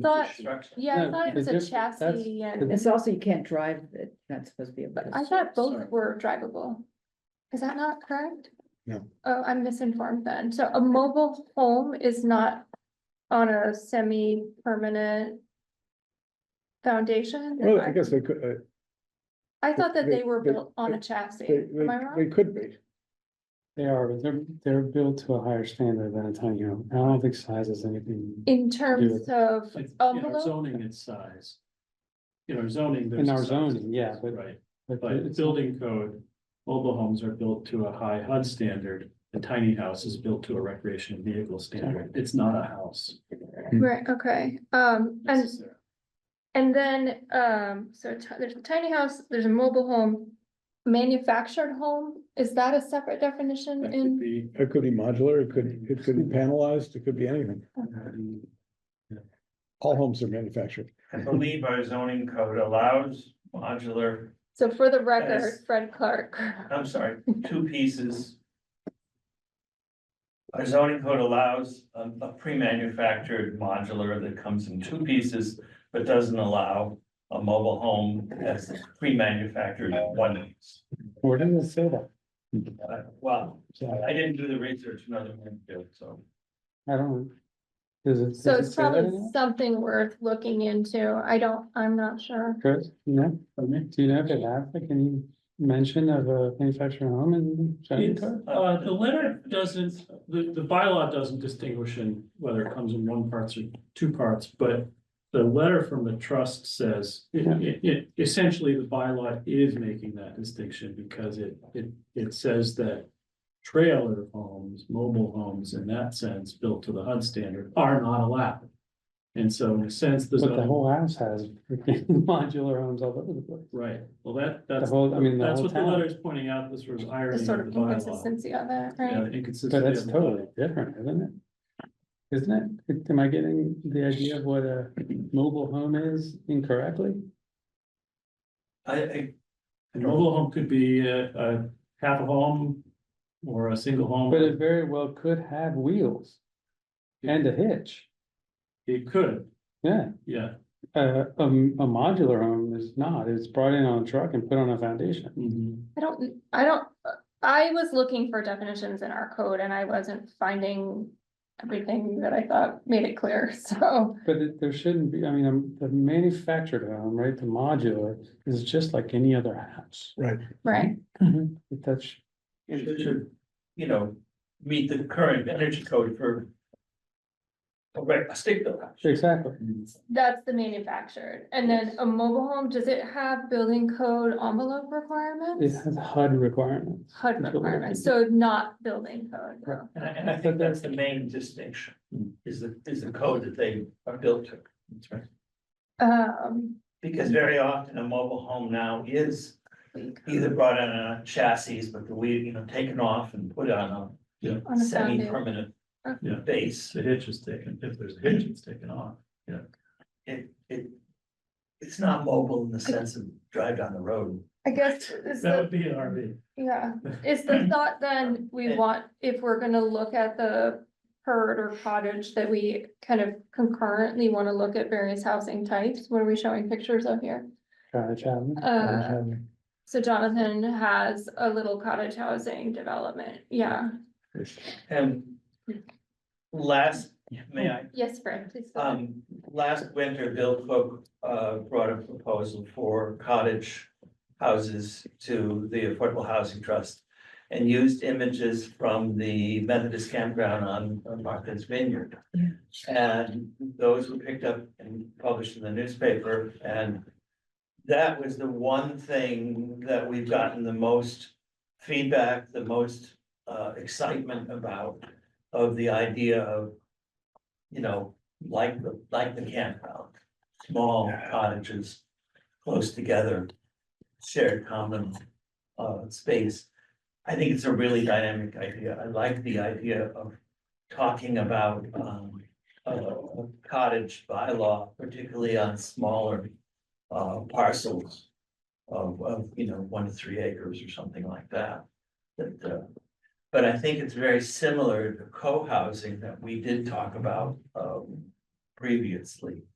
Thought- Construction. Yeah, I No, thought it was the a diff- that's chassis and, It's also, you can't drive it, that's supposed to be. but I thought Sorry. both were drivable. Is that not correct? No. Oh, I'm misinformed then. So a mobile home is not on a semi-permanent foundation? Well, I guess they could, uh, I thought that they were they- built on a they, chassis. they, Am I they wrong? could be. They are, but they're, they're built to a higher standard than a tiny home. I don't think size is anything. In terms of It's- In our envelope, zoning, it's size. In our zoning. there's In our size. zoning, yeah, but- Right, But but it's, building code, mobile homes are built to a high HUD standard. A tiny house is built to a recreational vehicle standard. It's not a house. right, okay, um, and necessarily. And then, um, so ti- there's a tiny house, there's a mobile home. Manufactured home, is that a separate definition That could in, be. It could be modular, it could, it could be panelized, it could be anything. um, All homes are manufactured. I believe our zoning code allows modular, so for the record, Yes. Fred Clark. I'm sorry, two pieces. Our zoning code allows a, a pre-manufactured modular that comes in two pieces, but doesn't allow a mobile home that's pre-manufactured in one piece. where did it say that? Uh, Well, So, I didn't do the research, another one did, so. I don't. Does it? does So it it's say that probably anywhere? something worth looking into, I don't, I'm not sure. Chris, you know, do you know if it has like any mention of a manufactured home in zoning It's, code? uh, the letter doesn't, the, the bylaw doesn't distinguish in whether it comes in one parts or two parts, but. The letter from the trust says, it, it- it- essentially, the bylaw is making that distinction because it, it, it says that. Trailer homes, mobile homes, in that sense, built to the HUD standard are not allowed. And so in a sense, the But the zoning, whole house has freaking modular homes all over the place. right, well, that, The that's, whole, I mean, the that's whole what the town, letter is pointing out, this was irony The of sort of the bylaw. inconsistency of it, Yeah, right? the inconsistency but that's of the bylaw. totally different, isn't it? Isn't it? Am I getting the idea of what a mobile home is incorrectly? I, I, A mobile home could be a, a half a home or a single home. But it very well could have wheels and a hitch. It could, Yeah, yeah. uh, um, a modular home is not. It's brought in on a truck and put on a foundation. I don't, I don't, I was looking for definitions in our code and I wasn't finding everything that I thought made it clear, so. But it- there shouldn't be, I mean, um, the manufactured home, right, the modular is just like any other house. Right. Right, It touch, should, should, you know, meet the current energy code for. A rec- a state bill. exactly. That's the manufactured, and then a mobile home, does it have building code envelope It requirements? has HUD requirements. HUD requirements, so not building code, Right. no. And I, and I think that's the main distinction, is the, is the code that they are built to. um, Because very often a mobile home now is either brought in on a chassis, but the wheel, you know, taken off and put on on a a foundation. semi-permanent Yeah. base. The hitch is taken, if there's a hitch, it's taken off. It, it, it's not mobile in the sense of drive down the road. I guess, is That the, would be an RV. yeah, is the thought then, we want, if we're gonna look at the herd or cottage, that we kind of concurrently wanna look at various housing types, what are we showing pictures of here? Cottage housing. Uh, cottage housing. So Jonathan has a little cottage housing development, yeah, And last, may I yes, Fran, please. go ahead. Um, last winter, Bill Cook, uh, brought a proposal for cottage houses to the Affordable Housing Trust. And used images from the Methodist campground on on Martha's Vineyard. And those were picked up and published in the newspaper and. That was the one thing that we've gotten the most feedback, the most, uh, excitement about. Of the idea of, you know, like the, like the campground, small cottages close together, shared common uh space. I think it's a really dynamic idea. I like the idea of talking about um a a cottage bylaw, particularly on smaller uh parcels of of, you know, one to three acres or something like that. That uh, but I think it's very similar to co-housing that we did talk about um previously.